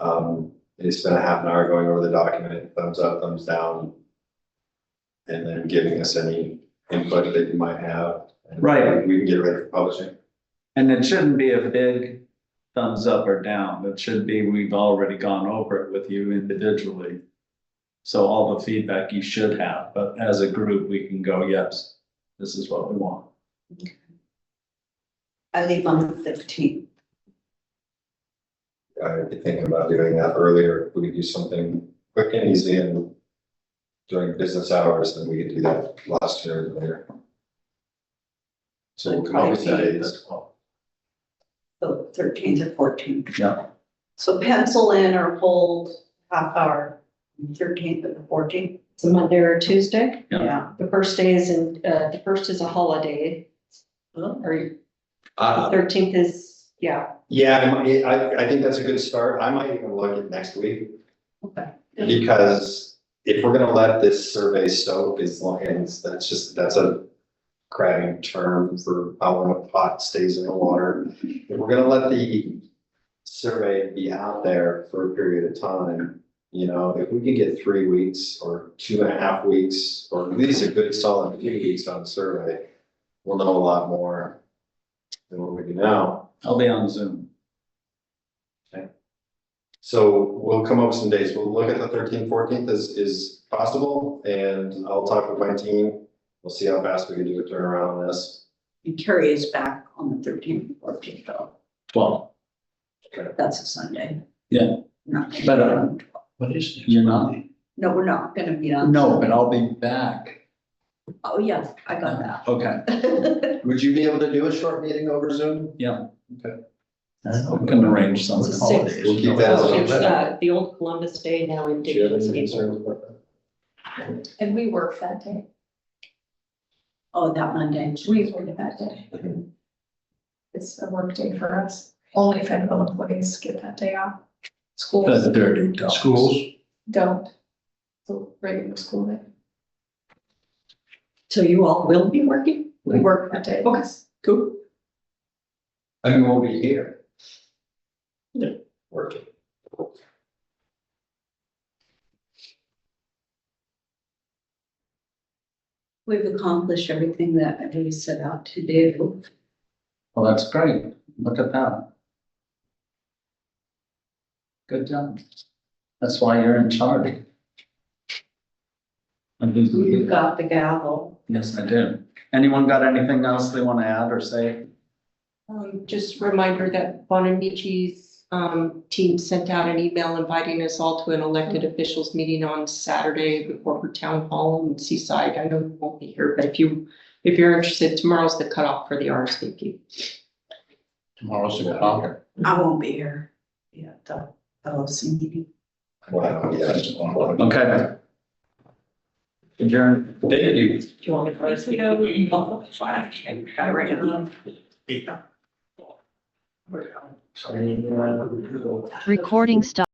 Um, they spent a half an hour going over the document, thumbs up, thumbs down. And then giving us any input that you might have. and Right. We can get ready for publishing. And it shouldn't be a big thumbs up or down. It should be, we've already gone over it with you individually. So all the feedback you should have, but as a group, we can go, yes, this is what we want. I leave on the fifteenth. I'd be thinking about doing that earlier. We could do something quick and easy and during business hours, then we could do that last year and later. So we'll come up with that is, So thirteenth or fourteenth. Yeah, So pencil in or hold half hour, thirteenth and the fourteenth. It's a Monday or a Tuesday. Yeah. The first day is in, uh, the first is a holiday, Well, or uh, thirteenth is, yeah. yeah, I might- I, I think that's a good start. I might even look at next week. Okay. Because if we're gonna let this survey soak as long as, that's just, that's a crabbing term for how long a pot stays in the water. If we're gonna let the survey be out there for a period of time, you know, if we can get three weeks or two and a half weeks, or at least a good solid few weeks on the survey, we'll know a lot more than what we do now. I'll be on Zoom. So we'll come up with some days. We'll look at the thirteenth, fourteenth as is possible and I'll talk with my team. We'll see how fast we can do a turnaround on this. And Carrie is back on the thirteenth and fourteenth, though. Twelve. That's a Sunday. Yeah. Not gonna But, be uh, on- What is this? You're not? No, we're not gonna be on. No, but I'll be back. Oh, yes, I got that. Okay, Would you be able to do a short meeting over Zoom? I can arrange It's something. a six. We'll keep that Oh, as It's, a. uh, the old Columbus Day now in Do you have any Dickinson. concerns about that? And we work that day. Oh, that Monday. We work that day. Mhm. It's a work day for us. Only federal employees get that day off. That's Schools dirty. dogs. Schools, don't. So regular school day. So you all will be working? We work that day. Okay. Cool. I mean, we'll be here. Yeah. Working. We've accomplished everything that we set out to do. Well, that's great. Look at that. Good job. That's why you're in charge. Mm-hmm. We've got the gavel. Yes, I do. Anyone got anything else they want to add or say? Um, just a reminder that Bonamici's, um, team sent out an email inviting us all to an elected officials meeting on Saturday before her town hall in Seaside. I know you won't be here, but if you, if you're interested, tomorrow's the cutoff for the RSVP. tomorrow's the clock. I won't be here. Yeah, the LOC meeting. Wow, yeah. Okay. Adjourn. Thank you. Do you want me to first go? I ran them. Recording stop.